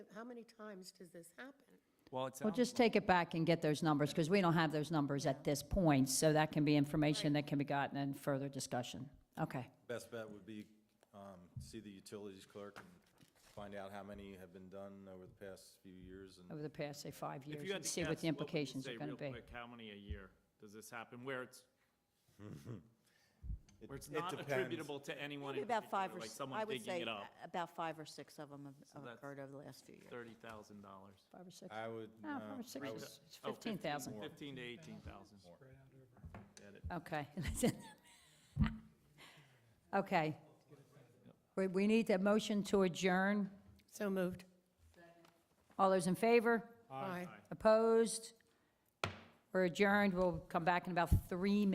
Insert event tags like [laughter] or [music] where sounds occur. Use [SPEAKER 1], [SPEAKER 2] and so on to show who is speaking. [SPEAKER 1] how many times does this happen?
[SPEAKER 2] Well, it
[SPEAKER 3] Well,
[SPEAKER 2] sounds,
[SPEAKER 3] just take it back and get those numbers, because we don't have those numbers at this point, so that can be information that can be gotten in further discussion. Okay.
[SPEAKER 4] Best bet would be, um, see the utilities clerk and find out how many have been done over the past few years and
[SPEAKER 3] Over the past, say, five
[SPEAKER 5] If
[SPEAKER 3] years,
[SPEAKER 5] you had
[SPEAKER 3] and
[SPEAKER 5] to
[SPEAKER 3] see
[SPEAKER 5] guess,
[SPEAKER 3] what the
[SPEAKER 5] would you
[SPEAKER 3] implications
[SPEAKER 5] say
[SPEAKER 3] are going to
[SPEAKER 5] real
[SPEAKER 3] be.
[SPEAKER 5] quick, How many a year does this happen, where it's,
[SPEAKER 4] it-
[SPEAKER 5] where it's
[SPEAKER 4] it
[SPEAKER 5] not
[SPEAKER 4] depends.
[SPEAKER 5] attributable to anyone
[SPEAKER 6] Maybe
[SPEAKER 5] in
[SPEAKER 6] about five
[SPEAKER 5] particular,
[SPEAKER 6] or,
[SPEAKER 5] like
[SPEAKER 6] s-
[SPEAKER 5] someone
[SPEAKER 6] I would
[SPEAKER 5] digging
[SPEAKER 6] say
[SPEAKER 5] it up,
[SPEAKER 6] a- about five or six of them have
[SPEAKER 5] that's
[SPEAKER 6] occurred over the last few years.
[SPEAKER 5] thirty thousand dollars.
[SPEAKER 3] Five or six?
[SPEAKER 4] I would,
[SPEAKER 3] No,
[SPEAKER 4] uh,
[SPEAKER 3] five or six
[SPEAKER 4] I would
[SPEAKER 3] is it's 15,000.
[SPEAKER 5] Oh, Fifteen to eighteen thousand.
[SPEAKER 3] Okay. [laughs] Okay. We, we need a motion to adjourn.
[SPEAKER 1] So moved.
[SPEAKER 3] All those in favor?
[SPEAKER 1] Aye.
[SPEAKER 3] Opposed? We're adjourned. We'll come back in about three minutes.